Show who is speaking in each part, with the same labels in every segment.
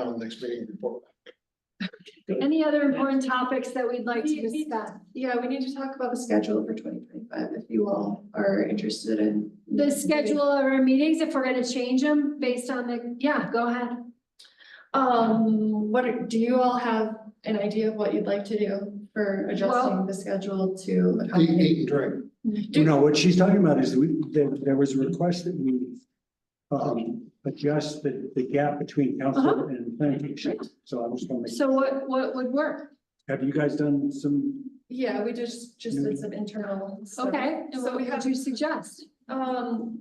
Speaker 1: on the next meeting and report. back.
Speaker 2: Any other important topics that we'd like to
Speaker 3: We- we-
Speaker 2: discuss?
Speaker 3: Yeah, we need to talk about the schedule for twenty twenty-five if you all are interested in.
Speaker 2: The schedule of our meetings, if we're gonna change them based on the, yeah, go ahead.
Speaker 3: Um, what, are- do you all have an idea of what you'd like to do for adjusting the schedule to
Speaker 1: Eat,
Speaker 3: accommodate?
Speaker 1: eat and drink.
Speaker 3: Do-
Speaker 4: No, what she's talking about is we, there, there was a request that we um, adjust the, the gap between council
Speaker 3: Uh-huh.
Speaker 4: and planning commission. So I was wondering,
Speaker 2: So what, what would work?
Speaker 4: have you guys done some,
Speaker 3: Yeah, we just, just did some internal. stuff.
Speaker 2: Okay, and
Speaker 3: So
Speaker 2: what
Speaker 3: we
Speaker 2: would
Speaker 3: have,
Speaker 2: you suggest?
Speaker 3: um.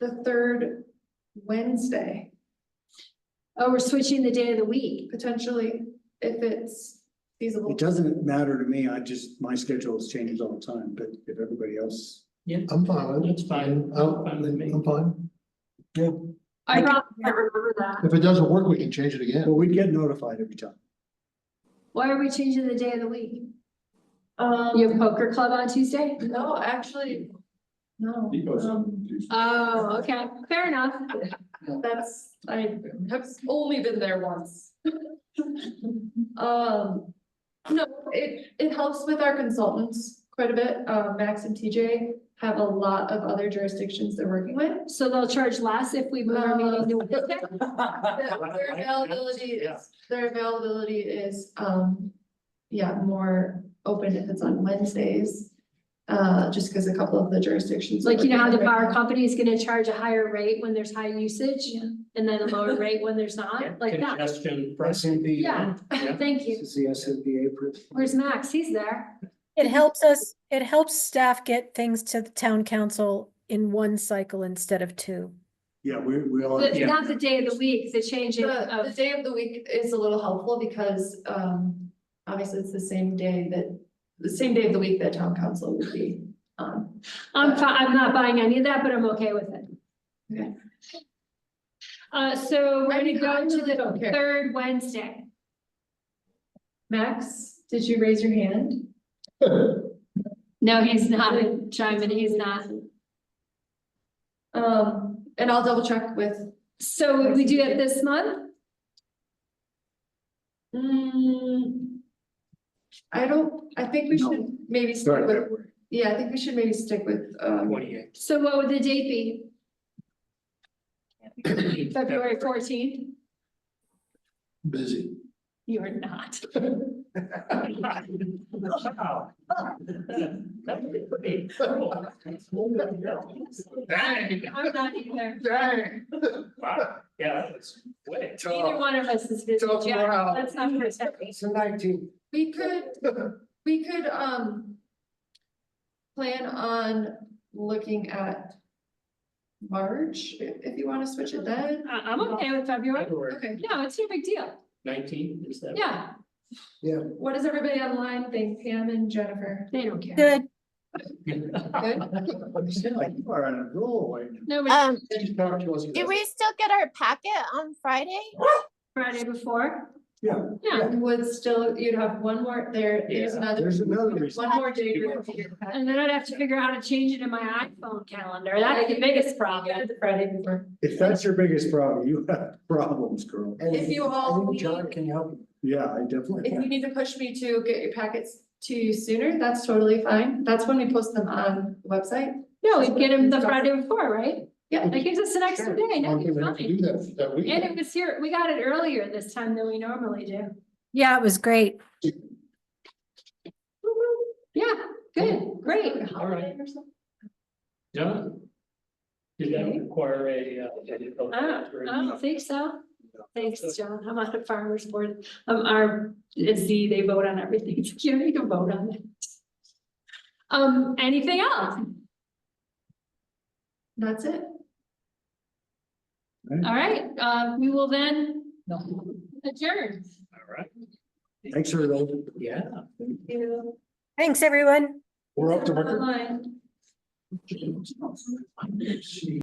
Speaker 3: The third Wednesday,
Speaker 2: Oh, we're switching the day of the week.
Speaker 3: potentially, if it's feasible.
Speaker 4: it doesn't matter to me, I just, my schedule is changes all the time, but if everybody else.
Speaker 1: I'm fine. with it.
Speaker 5: That's fine.
Speaker 1: I'm,
Speaker 5: Fine with me.
Speaker 1: I'm fine.
Speaker 2: I probably can't remember that.
Speaker 1: If it doesn't work, we can change it again.
Speaker 4: Well, we get notified every time.
Speaker 2: Why are we changing the day of the week? You have
Speaker 3: Um,
Speaker 2: poker club on Tuesday?
Speaker 3: no, actually, no.
Speaker 5: Because-
Speaker 3: um,
Speaker 2: Oh, okay, fair enough.
Speaker 3: That's, I have only been there once. Um, no, it, it helps with our consultants quite a bit. Uh, Max and TJ have a lot of other jurisdictions they're working with.
Speaker 2: So they'll charge less if we move our meeting to Wednesday?
Speaker 3: Their availability is, their availability is, um, yeah, more open if it's on Wednesdays. Uh, just because a couple of the jurisdictions.
Speaker 2: Like, you know how the
Speaker 3: bar.
Speaker 2: power company is gonna charge a higher rate when there's high usage? And then a lower rate when there's not, like that?
Speaker 5: Congestion pricing.
Speaker 2: Yeah,
Speaker 5: Yeah.
Speaker 2: thank you.
Speaker 4: the S M B A.
Speaker 2: Where's Max? He's there.
Speaker 6: It helps us, it helps staff get things to the town council in one cycle instead of two.
Speaker 4: Yeah, we, we all.
Speaker 2: The- Not the day of the week, the changing
Speaker 3: The, the
Speaker 2: of,
Speaker 3: day of the week is a little helpful because, um, obviously it's the same day that, the same day of the week that town council would be on.
Speaker 2: I'm fi- I'm not buying any of that, but I'm okay with it.
Speaker 3: Okay.
Speaker 2: Uh, so we're
Speaker 3: I
Speaker 2: gonna
Speaker 3: mean, I
Speaker 2: go to
Speaker 3: really don't
Speaker 2: the
Speaker 3: care.
Speaker 2: third Wednesday.
Speaker 3: Max, did you raise your hand?
Speaker 2: No, he's not chiming, he's not.
Speaker 3: Um, and I'll double check with,
Speaker 2: So would we do it this month?
Speaker 3: mm, I don't, I think we should maybe stick with, yeah, I think we should maybe stick with, um,
Speaker 5: Twenty-eight.
Speaker 2: So what would the date be? February fourteenth?
Speaker 1: Busy.
Speaker 2: You are not.
Speaker 5: Wow. That would be pretty cool. Dang.
Speaker 2: I'm not either.
Speaker 1: Dang.
Speaker 5: Wow, yeah, that was way.
Speaker 2: Neither
Speaker 1: uh,
Speaker 2: one of us is busy,
Speaker 1: Tough
Speaker 2: Jack.
Speaker 1: morale.
Speaker 2: Let's not pretend.
Speaker 3: we could, we could, um, plan on looking at March, i- if you want to switch it then.
Speaker 2: I- I'm okay with February.
Speaker 5: February
Speaker 3: Okay,
Speaker 2: No, it's no big deal.
Speaker 5: nineteen, is that?
Speaker 2: Yeah,
Speaker 3: what does everybody online think, Pam and Jennifer?
Speaker 2: they don't care.
Speaker 6: Good.
Speaker 4: You are on a roll right now.
Speaker 2: No, but
Speaker 7: Um, did we still get our packet on Friday?
Speaker 2: Friday before.
Speaker 4: Yeah.
Speaker 2: Yeah,
Speaker 3: Would still, you'd have one more, there, there's
Speaker 5: Yeah.
Speaker 3: another,
Speaker 4: There's another reason.
Speaker 3: one more day. for it to get back.
Speaker 2: and then I'd have to figure out how to change it in my iPhone calendar. That's the biggest problem.
Speaker 3: The Friday before.
Speaker 4: If that's your biggest problem, you have problems, girl.
Speaker 3: If you all, need-
Speaker 1: can you help?
Speaker 4: Yeah, I definitely.
Speaker 3: if you need to push me to get your packets to you sooner, that's totally fine. That's when we post them on the website.
Speaker 2: No, we get him the Friday before, right?
Speaker 3: Yeah.
Speaker 2: That gives us an extra day. No,
Speaker 1: One
Speaker 2: you're
Speaker 1: thing we have to
Speaker 2: fine.
Speaker 1: do that, that
Speaker 2: And it
Speaker 1: weekend.
Speaker 2: was here, we got it earlier this time than we normally do.
Speaker 6: Yeah, it was great.
Speaker 2: Yeah, good, great.
Speaker 5: All right. Done. Did that require a? uh, edit?
Speaker 2: I don't, Oh, I don't think so. Thanks, John. I'm on the farmer's board. Um, our, it's the, they vote on everything. You don't need to vote on it. Um, anything else?
Speaker 3: That's it.
Speaker 2: All right, uh, we will then adjourn.
Speaker 5: All right,
Speaker 4: Thanks, everybody.
Speaker 5: yeah.
Speaker 6: Thanks, everyone.
Speaker 1: We're up to record.
Speaker 2: Online.
Speaker 5: She